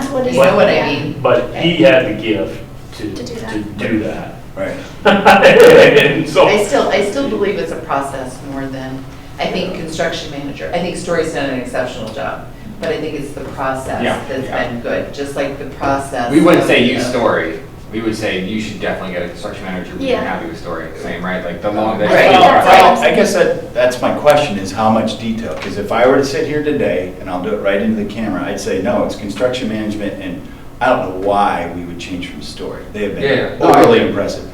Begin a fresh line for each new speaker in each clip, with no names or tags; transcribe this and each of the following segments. what is
You know what
that?
I mean?
But he had the gift to,
To do that.
to do that.
Right.
And so,
I still, I still believe it's a process more than, I think construction manager, I think Story's done an exceptional job, but I think it's the process
Yeah,
that's
yeah.
been good, just like the process.
We wouldn't say
of,
use
uh,
story, we would say you should definitely get a construction manager, we're
Yeah.
happy with story, same, right? Like the long, the.
Right.
Well,
that's-
well, I guess that, that's my question, is how much detail? Because if I were to sit here today, and I'll do it right into the camera, I'd say, no, it's construction management, and I don't know why we would change from story. They have
Yeah,
been
no, I
overly
agree.
impressive.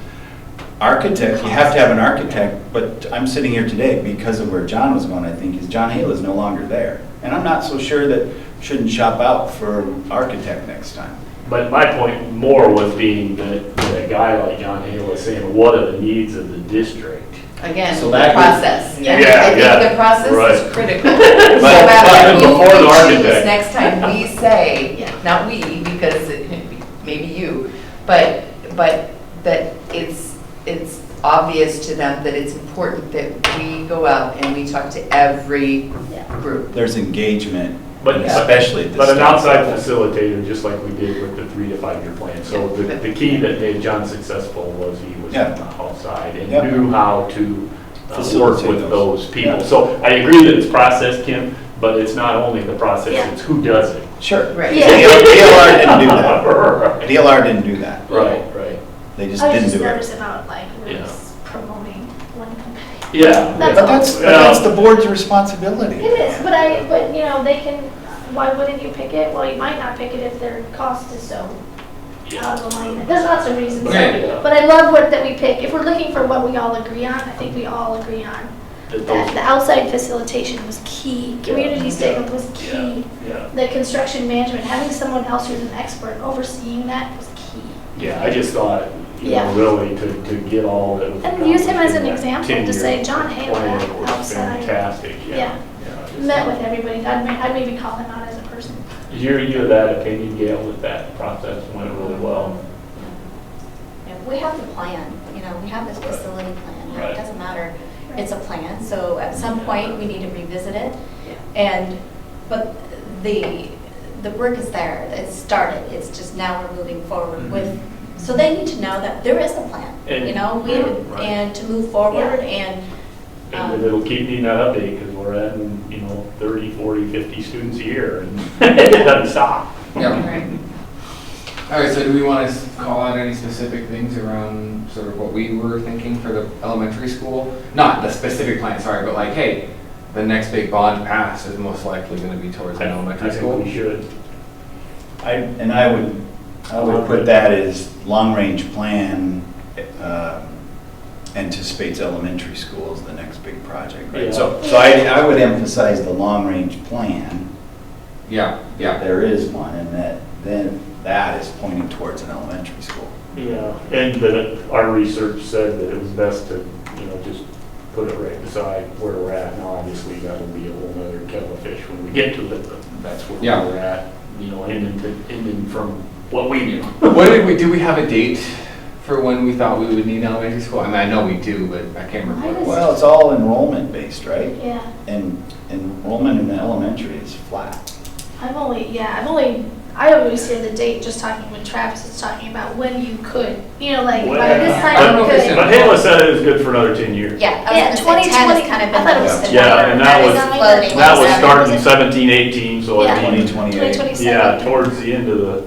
Architect, you have to have an architect, but I'm sitting here today because of where John was going, I think, is John Hale is no longer there. And I'm not so sure that shouldn't shop out for architect next time.
but my point more was being that, that a guy like John Hale is saying, what are the needs of the district?
Again,
So
the
that would-
process.
Yeah,
I think- I
yeah,
think the process
right.
is critical. So
But-
that
but
you
before the
choose
architect.
Next time we say, not we, because it could be- maybe you, but, but that it's, it's obvious to them that it's important that we go out and we talk to every
Yeah.
group.
There's engagement,
But-
especially at this.
But an
stage.
outside facilitator, just like we did with the three to five-year plan. So the, the key that made John successful was he was
Yeah.
outside and
Yeah.
knew how to uh, work
Facilitate
with
those.
those people.
Yeah.
So I agree that it's process, Kim, but it's not only the process,
Yeah.
it's who does it.
Sure.
Right.
Yeah.
DLR didn't do that.
Right,
DLR didn't do that.
right.
They just
I was
didn't
just
do it.
nervous about like, we're
Yeah.
just promoting one company.
Yeah.
That's
But that's, but that's the board's responsibility.
It is, but I, but you know, they can, why wouldn't you pick it? Well, you might not pick it if their cost is so out of alignment. There's lots of reasons.
Okay.
so- But I love what, that we pick. If we're looking for what we all agree on, I think we all agree on that
That those-
the outside facilitation was key. Community
Yeah.
statement was
Yeah,
key.
yeah.
The construction management, having someone else who's an expert overseeing that was key.
Yeah, I just thought, you know,
Yeah.
really to, to get all that. was
And use him as an
accomplished in that
example to say,
10-year
John Hale
plan
had
was
outside-
Fantastic,
Yeah.
yeah. yeah, I just-
Met with everybody. I'd, ma- I'd maybe call them out as a person.
You're, you're that opinion, Gail, that that process went really
Um,
well.
Yeah, We have the plan, you know, we have this facility plan,
Right.
it doesn't matter, it's a plan, so at some point, we need to revisit it. And, but the, the work is there, it's started, it's just now we're moving forward with, so they need to know that there is a plan, you
Mm-hmm. And-
know, we,
Right.
and to move forward and. um,
And it'll keep needing that update because we're adding, you know, 30, 40, 50 students a year and it doesn't stop.
Yeah. All right, so do we want to call out any specific things around sort of what we were thinking for the elementary school? Not the specific plan, sorry, but like, hey, the next big bond pass is most likely going to be towards
I
an
I
elementary
think we
school.
should.
I, and I would, I would put that as long-range plan uh, anticipates elementary school as the next big project,
Yeah.
right? So, so I, I would emphasize the long-range plan,
Yeah,
that
yeah.
there is one, and that, then that is pointing towards an elementary school.
Yeah, and that our research said that it was best to, you know, just put it right beside where we're at. Now, obviously, that'll be a whole nother kettle of fish when we get to it, but that's where
Yeah.
we're at, you know, ending, to- ending from what we knew.
What did we, do we have a date for when we thought we would need elementary school? I mean, I know we do, but I can't remember. what it was.
Well, it's all enrollment-based, right?
Yeah.
And enrollment in the elementary is flat.
I've only, yeah, I've only, I always hear the date just talking when Travis is talking about when you could, you know, like by
Well,
this
I don't
time
know
you
if it's
could.
in-
But Halo said it was good for another 10 years.
Yeah, I
Yeah,
was gonna say, ten
2020
has kind of
I
been.
thought it
like
was
the-
Yeah, and that was-
floating,
That was
seven,
starting
it?
17, 18, so
Yeah.
I mean,
2028.
yeah, towards the end of the,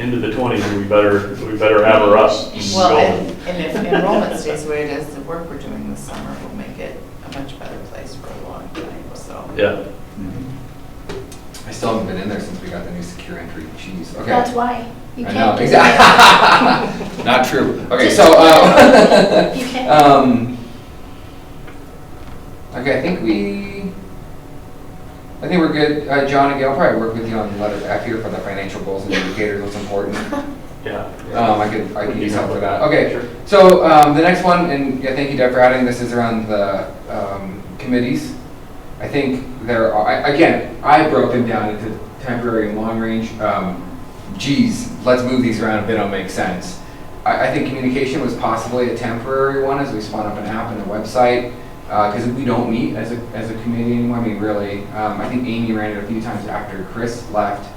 end of the 20s, we better, we better have her up and
Well,
going.
and and if enrollment stays the way it is, the work we're doing this summer will make it a much better place for a long time, so.
Yeah.
Mm-hmm.
I still haven't been in there since we got the new secure entry. Jeez, okay.
That's why you
I know,
can't. do that.
exactly. Not true. Okay,
Just-
so, um,
You can't.
um, okay, I think we, I think we're good. Uh, John and Gail probably work with you on letter F here for the financial goals and indicators, what's important.
Yeah.
Um, I could, I could
We
use
can help
help with
with
that.
that.
Okay,
Sure.
so, um, the next one, and yeah, thank you Deb for adding, this is around the, um, committees. I think there are, I- again, I broke them down into temporary and long range. Um, geez, let's move these around a bit, it'll make sense. I, I think communication was possibly a temporary one as we spun up an app and a website, because we don't meet as a, as a committee anymore, I mean, really. Um, I think Amy ran it a few times after Chris left,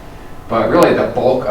but really the bulk of